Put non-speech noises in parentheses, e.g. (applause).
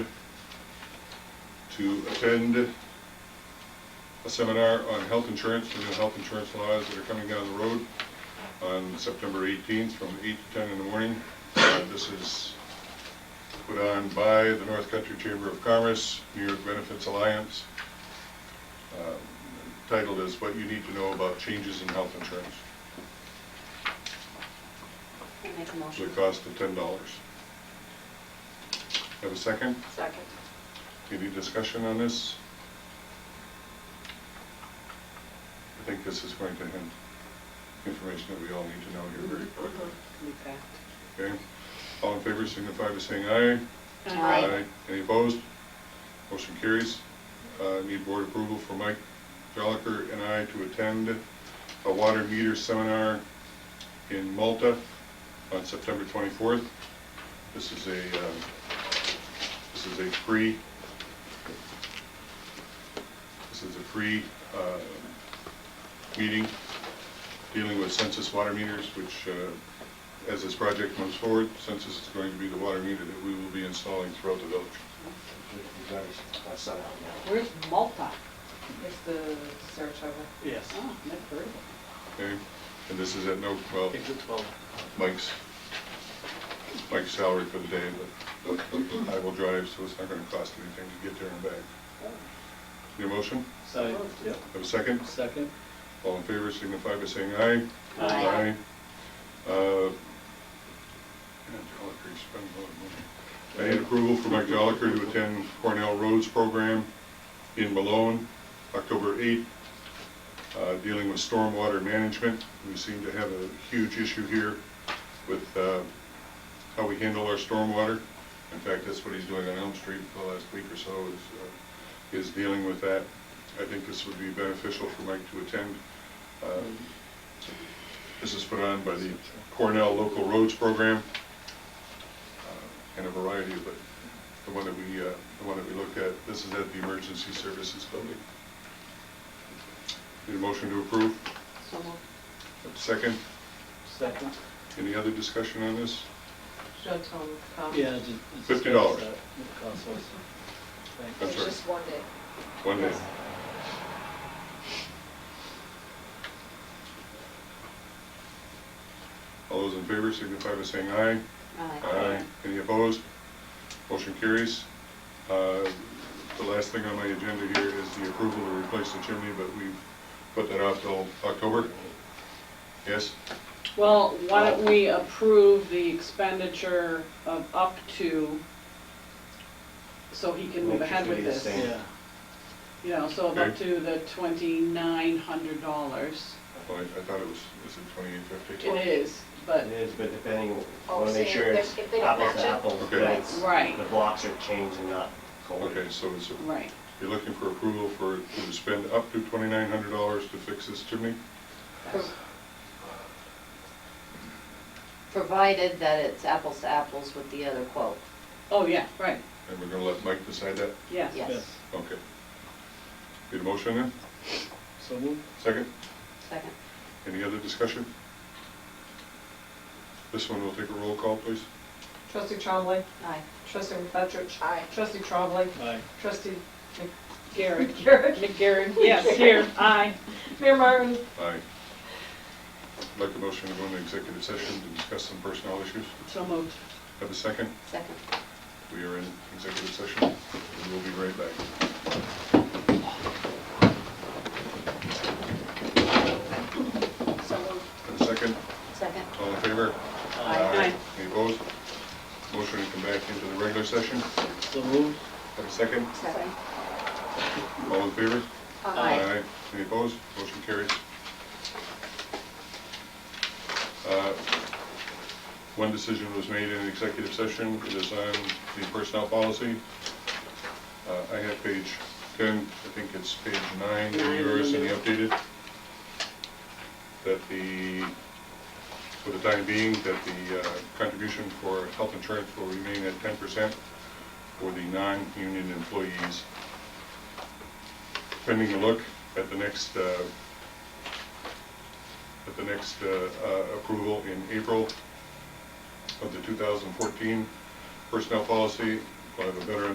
to attend a seminar on health insurance, the new health insurance laws that are coming down the road on September 18th from 8 to 10 in the morning. Uh, This is put on by the North Country Chamber of Commerce, New York Benefits Alliance, um, titled is What You Need to Know About Changes in Health Insurance, Make a the motion. cost of $10. Have a second? Second. Any discussion on this? I think this is going to hint information that we all need to know here very quickly. Okay? All in favor signify by saying aye. Aye. Any opposed? Motion carries. Uh, Need board approval for Mike Joliker and I to attend a water meter seminar in Malta on September 24th. This is a, uh, this is a free, this is a free uh, meeting dealing with census water meters, which uh, as this project moves forward, census is going to be the water meter that we will be installing throughout the village. Where's Malta? It's the search over. Yes, Oh, never heard of Okay? And this is at no, well, exit 12. Mike's, Mike's salary for the day, but I will drive, so it's not gonna cost anything to get there and back. Your motion? Side, yep. Have a second? Second? All in favor signify by saying aye. Aye. Aye. Uh, man, Joliker, you spend a lot of money. I need approval for Mike Joliker to attend Cornell Roads Program in Malone, October 8th, uh, dealing with stormwater management. We seem to have a huge issue here with uh, how we handle our stormwater. In fact, that's what he's doing on Elm Street for the last week or so, is, uh, is dealing with that. I think this would be beneficial for Mike to attend. Um, This is put on by the Cornell Local Roads Program uh, and a variety of, it. the one that we, uh, the one that we looked at, this is at the Emergency Services Building. Need a motion to approve? it. So moved. Second, Second? any other discussion on this? Should I tell them to come? Yeah. ju- $50. just discuss that, what the cost was. Thanks. That's It's right. just one day. One day. All those in favor signify by saying aye. Any opposed? Motion carries. Uh, The last thing on my agenda here is the approval to replace the chimney, but we've put that off till October. Yes? Well, why don't we approve the expenditure of up to, so he can move ahead with this? Yeah, You know, so of up to the twenty-nine hundred dollars. Well, I I thought it was, is it twenty-eight fifty? It is, but, It is, but depending, Oh, want to make so sure if it's they- if they don't apples match to it? apples. Okay. that it's- Right. The blocks are changed and not colored. Okay, so it's, right, you're looking for approval for, to spend up to twenty-nine hundred dollars to fix this chimney? Provided that it's apples to apples with the other quote. oh, yeah, right, And we're gonna let Mike decide that? yes. Yeah. yes. Okay. Need a motion then? So moved? Second? Second. Any other discussion? This one will take a roll call, please. Trustee Trombley, Aye. trustee McFetrich. Aye. Trustee Trombley, Aye. trustee (laughs) Garrett, McGarrett. McGarrett, yes, here, aye. Mayor Martin. Aye. I'd Like a motion to go into executive session to discuss some personnel issues. So moved. Have a second? Second. We are in executive session, and we'll be right back. So moved. Have a second? Second. All in favor? Aye. Any opposed? Motion to come back into the regular session. Have So moved? a second? Second. All in favor? Aye. Any opposed? Motion carries. Uh, One decision was made in executive session, it is on the personnel policy. Uh, I have page 10, I think it's page 9 in Nine, yours in the yeah. updated, that the, for the time being, that the uh, contribution for health insurance will remain at 10% for the non-union employees pending a look at the next, uh, at the next uh, uh, approval in April of the 2014 personnel policy. We'll have a better